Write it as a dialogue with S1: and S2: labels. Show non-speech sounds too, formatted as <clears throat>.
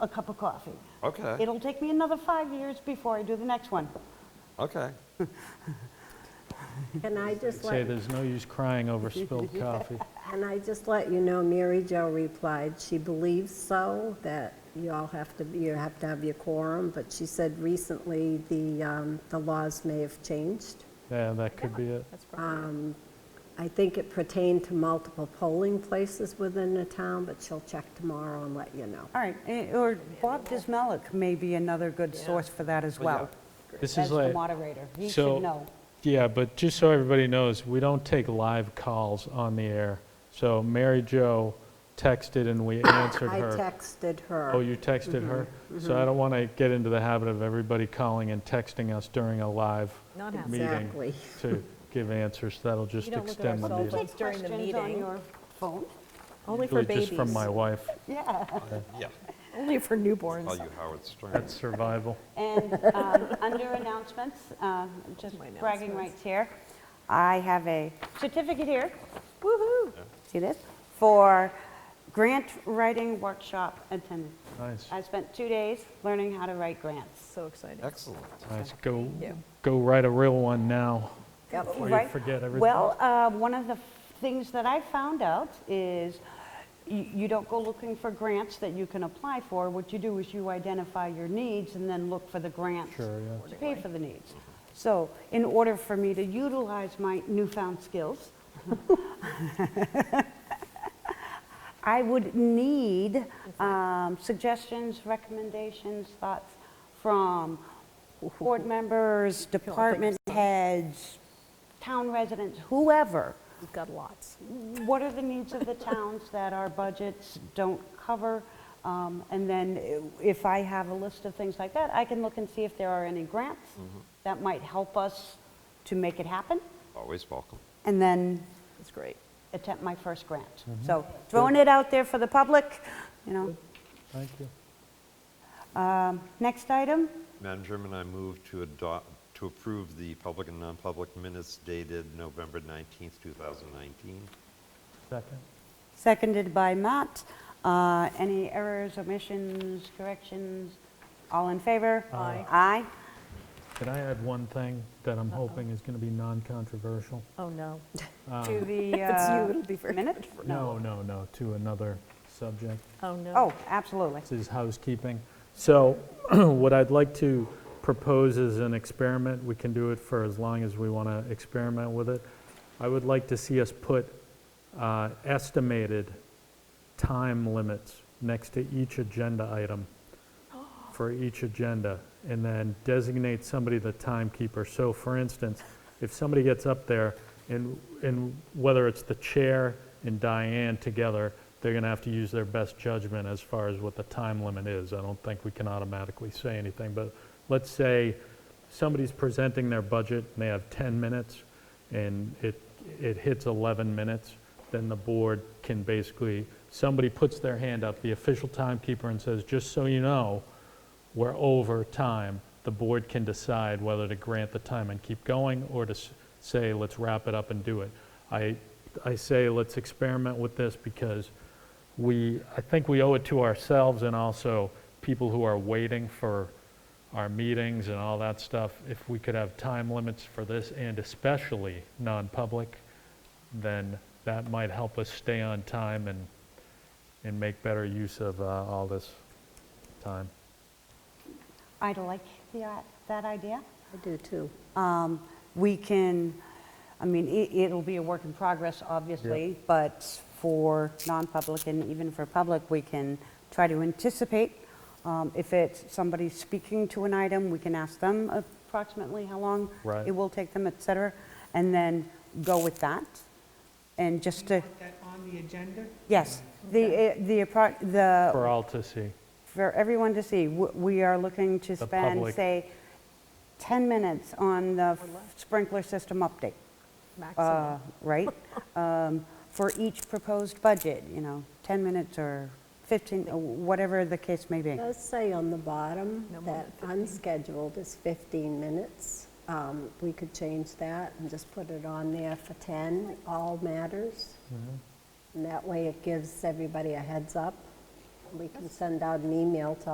S1: a cup of coffee.
S2: Okay,
S1: It'll take me another five years before I do the next one.
S2: okay.
S3: And I just
S4: Say
S3: let,
S4: there's no use crying
S3: <laughs>
S4: over spilled coffee.
S3: and I just let you know, Mary Jo replied, she believes so, that you all have to, you have to have your quorum, but she said recently the, um, the laws may have changed.
S4: Yeah, that could be it.
S5: That's probably,
S3: I think it pertained to multiple polling places within the town, but she'll check tomorrow and let you know.
S1: All right, eh, or Bob Dismelik may be another good source for that as well,
S4: This
S1: as
S4: is
S1: the
S4: like,
S1: moderator. He
S4: so-
S1: should know.
S4: yeah, but just so everybody knows, we don't take live calls on the air. So Mary Jo texted and we answered
S3: <coughs> I
S4: her.
S3: texted her. Mm-hmm,
S4: Oh, you texted her? So I don't want to get into the habit of everybody calling and texting us during a live
S5: Not happening.
S4: meeting
S3: Exactly.
S4: to give answers. That'll just
S5: don't look at
S4: extend
S5: our
S4: the
S5: cell
S4: meeting.
S5: phone. It's during the
S1: Questions on
S5: meeting.
S1: your phone?
S5: only for
S4: Usually
S5: babies.
S4: Just from my wife.
S1: Yeah.
S2: Yeah,
S5: <laughs> Only for
S2: tell
S4: Oh,
S5: newborns.
S2: you Howard Stern.
S4: That's survival.
S1: And <laughs> um, under announcements, uh, just
S5: My
S1: bragging
S5: announcements.
S1: rights here, I have a certificate here, woo-hoo, see this, for grant writing workshop attendance.
S4: Nice.
S1: I spent two days learning how to write grants.
S5: So exciting.
S2: Excellent.
S4: Nice. Go,
S5: Yeah.
S4: go write a real one now. Before you
S1: Right?
S4: forget everything.
S1: Well, uh, one of the things that I found out is you you don't go looking for grants that you can apply for. What you do is you identify your needs and then look for the grants
S4: Sure, yeah.
S1: to pay for the needs. So in order for me to utilize my newfound skills, <laughs> I would need um, suggestions, recommendations, thoughts from board members, department heads, town residents, whoever.
S5: We've got lots.
S1: What are the needs of the towns that our budgets don't cover? Um, And then i- if I have a list of things like that, I can look and see if there are any grants that might help us to make it happen,
S2: Always welcome.
S1: and then
S5: That's great.
S1: attempt my first grant. So throwing it out there for the public, you know.
S4: Thank you.
S1: Next item,
S2: Madam Chairman, I move to adopt, to approve the public and non-public minutes dated November 19th, 2019.
S4: Second.
S1: seconded by Matt. Uh, Any errors, omissions, corrections? All in favor?
S5: Aye.
S1: Aye.
S4: Can I add one thing that I'm hoping is going to be non-controversial?
S5: Oh, no.
S1: To the
S5: it's you,
S1: uh,
S5: it'll be very
S1: minute?
S4: No, no, no, to another subject.
S5: Oh, no.
S1: Oh, absolutely.
S4: This is housekeeping. So <clears throat> what I'd like to propose is an experiment. We can do it for as long as we want to experiment with it. I would like to see us put uh, estimated time limits next to each agenda item for each agenda, and then designate somebody the timekeeper. So for instance, if somebody gets up there, and, and whether it's the chair and Diane together, they're gonna have to use their best judgment as far as what the time limit is. I don't think we can automatically say anything, but let's say somebody's presenting their budget, and they have 10 minutes, and it, it hits 11 minutes, then the board can basically, somebody puts their hand up, the official timekeeper, and says, just so you know, we're over time, the board can decide whether to grant the time and keep going, or to s- say, let's wrap it up and do it. I, I say, let's experiment with this, because we, I think we owe it to ourselves and also people who are waiting for our meetings and all that stuff, if we could have time limits for this, and especially non-public, then that might help us stay on time and, and make better use of uh, all this time.
S1: I'd like the, uh, that idea.
S3: I do too.
S1: Um, We can, I mean, i- it'll be a work in progress, obviously, but for non-public and even for public, we can try to anticipate. Um, If it's somebody speaking to an item, we can ask them approximately how long
S4: Right.
S1: it will take them, et cetera, and then go with that. And just to,
S6: Put that on the agenda?
S1: yes, the, eh, the, appro- the
S4: For all to see.
S1: for everyone to see, w- we are looking to
S4: The
S1: spend,
S4: public.
S1: say, 10 minutes on the sprinkler system update, uh,
S5: Maximum.
S1: right? Um, For each proposed budget, you know, 10 minutes or 15, or whatever the case may be.
S3: It does say on the bottom
S5: No more
S3: that unscheduled is 15 minutes. Um, We could change that and just put it on there for 10, all matters. And that way it gives everybody a heads up. We can send out an email to